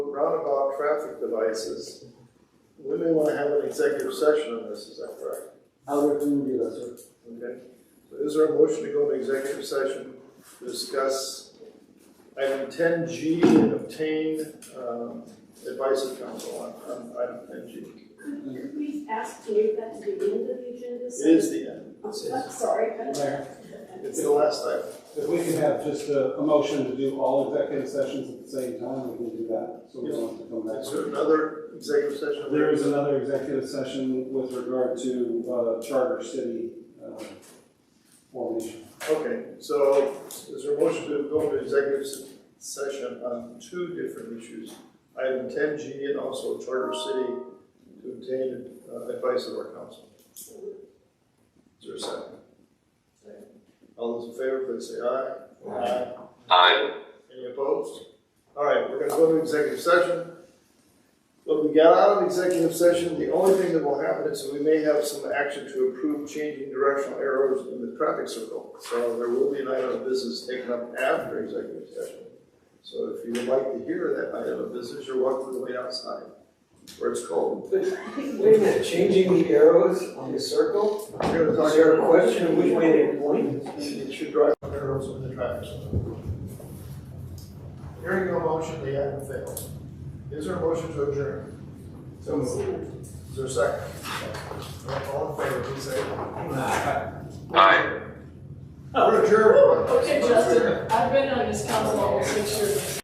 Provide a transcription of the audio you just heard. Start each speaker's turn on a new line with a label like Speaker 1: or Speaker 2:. Speaker 1: roundabout traffic devices, we may wanna have an executive session on this, is that correct?
Speaker 2: I would recommend you, that's it.
Speaker 1: Okay, so is there a motion to go into executive session to discuss item ten G and obtain, um, advice of counsel on, on item ten G?
Speaker 3: Could you please ask to leave that to the end of the agenda?
Speaker 1: It is the end,
Speaker 3: I'm sorry.
Speaker 4: Mayor,
Speaker 1: it's the last item.
Speaker 4: if we can have just a, a motion to do all executive sessions at the same time, we can do that, so we don't have to come
Speaker 1: Is there
Speaker 4: back.
Speaker 1: another executive session?
Speaker 4: There is another executive session with regard to, uh, charter city, uh, formation.
Speaker 1: Okay, so is there a motion to go into executive se- session on two different issues? Item ten G and also Charter City to obtain uh, advice of our council. Is there a second? All those in favor, please say aye. Aye.
Speaker 5: Aye.
Speaker 1: Any opposed? All right, we're gonna go to executive session. When we got out of executive session, the only thing that will happen is we may have some action to approve changing directional arrows in the traffic circle. So there will be an item of business taken up after executive session. So if you would like to hear that item of business, you're welcome to wait outside where it's cold.
Speaker 6: Wait a minute, changing the arrows on the circle?
Speaker 1: We're gonna
Speaker 6: Is
Speaker 1: talk
Speaker 6: there a
Speaker 1: about
Speaker 6: question of which way they point?
Speaker 1: it should drive arrows in the traffic circle. Hearing no motion, the item fails. Is there a motion to adjourn?
Speaker 6: So moved.
Speaker 1: Is there a second? All in favor, please say aye.
Speaker 5: Aye.
Speaker 1: We're adjourned.
Speaker 3: Okay, Justin, I've been on this council almost six years.